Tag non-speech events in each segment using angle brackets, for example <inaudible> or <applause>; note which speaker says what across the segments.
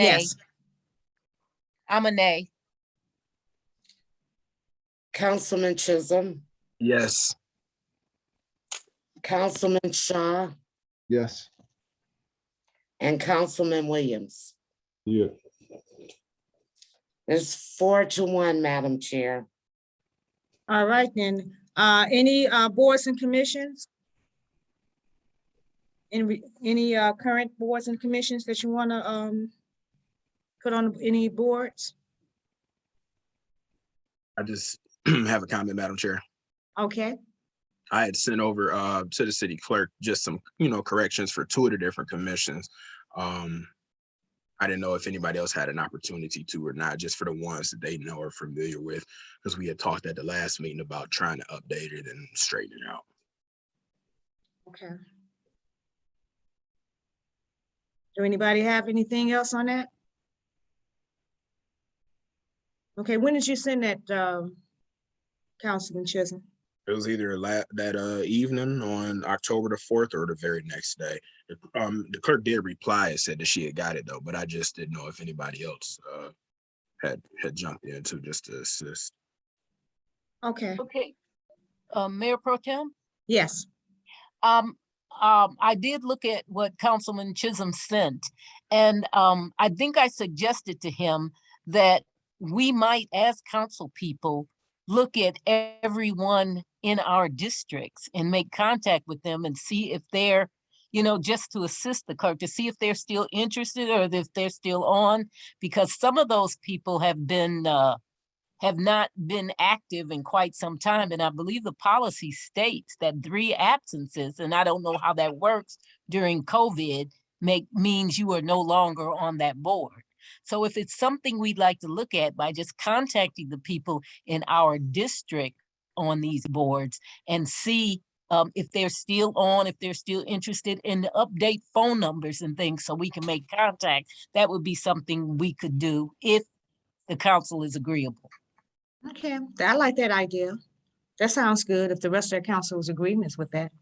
Speaker 1: Nay.
Speaker 2: Yes.
Speaker 1: I'm a nay.
Speaker 2: Councilman Chisholm,
Speaker 3: Yes.
Speaker 2: Councilman Shaw,
Speaker 4: Yes.
Speaker 2: and Councilman Williams.
Speaker 4: Yeah.
Speaker 2: It's four to one, Madam Chair.
Speaker 5: All right then, uh, any, uh, boards and commissions? Any, any, uh, current boards and commissions that you wanna, um, put on any boards?
Speaker 3: I just <clears throat> have a comment, Madam Chair.
Speaker 5: Okay,
Speaker 3: I had sent over uh to the city clerk just some, you know, corrections for two of the different commissions. Um. I didn't know if anybody else had an opportunity to or not, just for the ones that they know are familiar with, because we had talked at the last meeting about trying to update it and straighten it out.
Speaker 5: okay. Do anybody have anything else on that? Okay, when did you send that, um, Councilman Chisholm?
Speaker 3: It was either la- that uh evening on October the fourth or the very next day. The- Um, the clerk did reply and said that she had got it though, but I just didn't know if anybody else uh had had jumped in to just to assist.
Speaker 5: Okay,
Speaker 1: Okay. Uh, Mayor Pro Tem,
Speaker 5: yes,
Speaker 1: um, um, I did look at what Councilman Chisholm sent. And, um, I think I suggested to him that we might, as council people, look at everyone in our districts and make contact with them and see if they're, you know, just to assist the clerk, to see if they're still interested or if they're still on. Because some of those people have been, uh, have not been active in quite some time. And I believe the policy states that three absences, and I don't know how that works during COVID, make, means you are no longer on that board. So if it's something we'd like to look at by just contacting the people in our district on these boards and see um, if they're still on, if they're still interested and to update phone numbers and things so we can make contact, that would be something we could do if the council is agreeable.
Speaker 5: okay, I like that idea. That sounds good, if the rest of the council's agreements with that.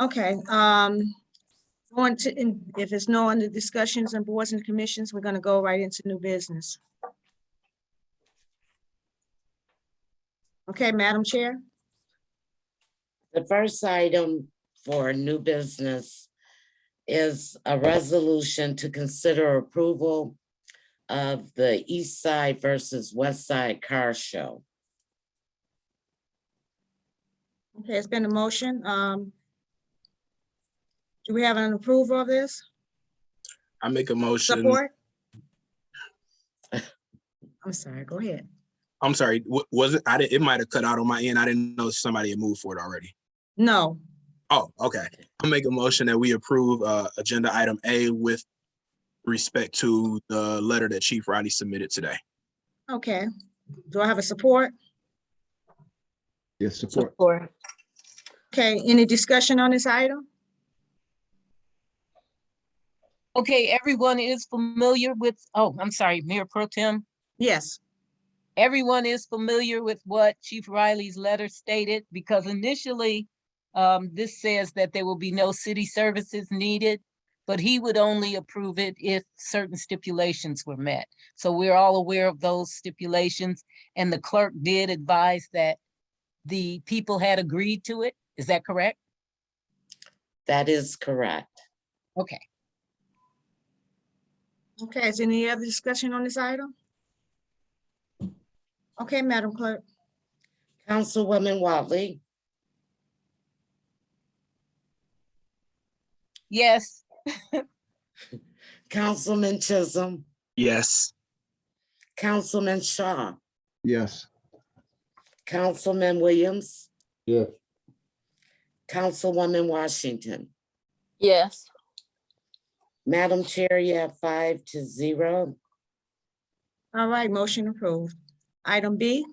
Speaker 5: Okay, um, on to, in- if it's no under discussions and boards and commissions, we're gonna go right into new business. Okay, Madam Chair,
Speaker 2: The first item for new business is a resolution to consider approval of the East Side versus West Side Car Show.
Speaker 5: okay, it's been a motion, um. Do we have an approval of this?
Speaker 3: I make a motion.
Speaker 5: Support? <laughs> I'm sorry, go ahead.
Speaker 3: I'm sorry, wa- was it, I didn't, it might have cut out on my end. I didn't know somebody had moved for it already.
Speaker 5: No,
Speaker 3: Oh, okay. I'll make a motion that we approve uh agenda item A with respect to the letter that Chief Riley submitted today.
Speaker 5: okay. Do I have a support?
Speaker 4: Yes, support.
Speaker 5: Okay, any discussion on this item?
Speaker 1: Okay, everyone is familiar with, oh, I'm sorry, Mayor Pro Tem.
Speaker 5: Yes,
Speaker 1: Everyone is familiar with what Chief Riley's letter stated because initially um, this says that there will be no city services needed, but he would only approve it if certain stipulations were met. So we're all aware of those stipulations and the clerk did advise that the people had agreed to it. Is that correct?
Speaker 2: That is correct.
Speaker 1: Okay.
Speaker 5: okay, is any other discussion on this item? Okay, Madam Clerk,
Speaker 2: Councilwoman Watley,
Speaker 1: Yes,
Speaker 2: Councilman Chisholm,
Speaker 3: Yes.
Speaker 2: Councilman Shaw,
Speaker 4: Yes.
Speaker 2: Councilman Williams,
Speaker 4: Yeah.
Speaker 2: Councilwoman Washington.
Speaker 6: Yes,
Speaker 2: Madam Chair, you have five to zero.
Speaker 5: all right, motion approved. Item B,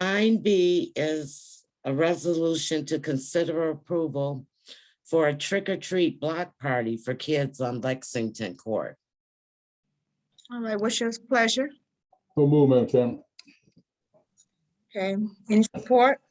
Speaker 2: Nine B is a resolution to consider approval for a trick or treat block party for kids on Lexington Court.
Speaker 5: all right, what's your pleasure?
Speaker 4: So move, Madam Chairman.
Speaker 5: Okay, any support?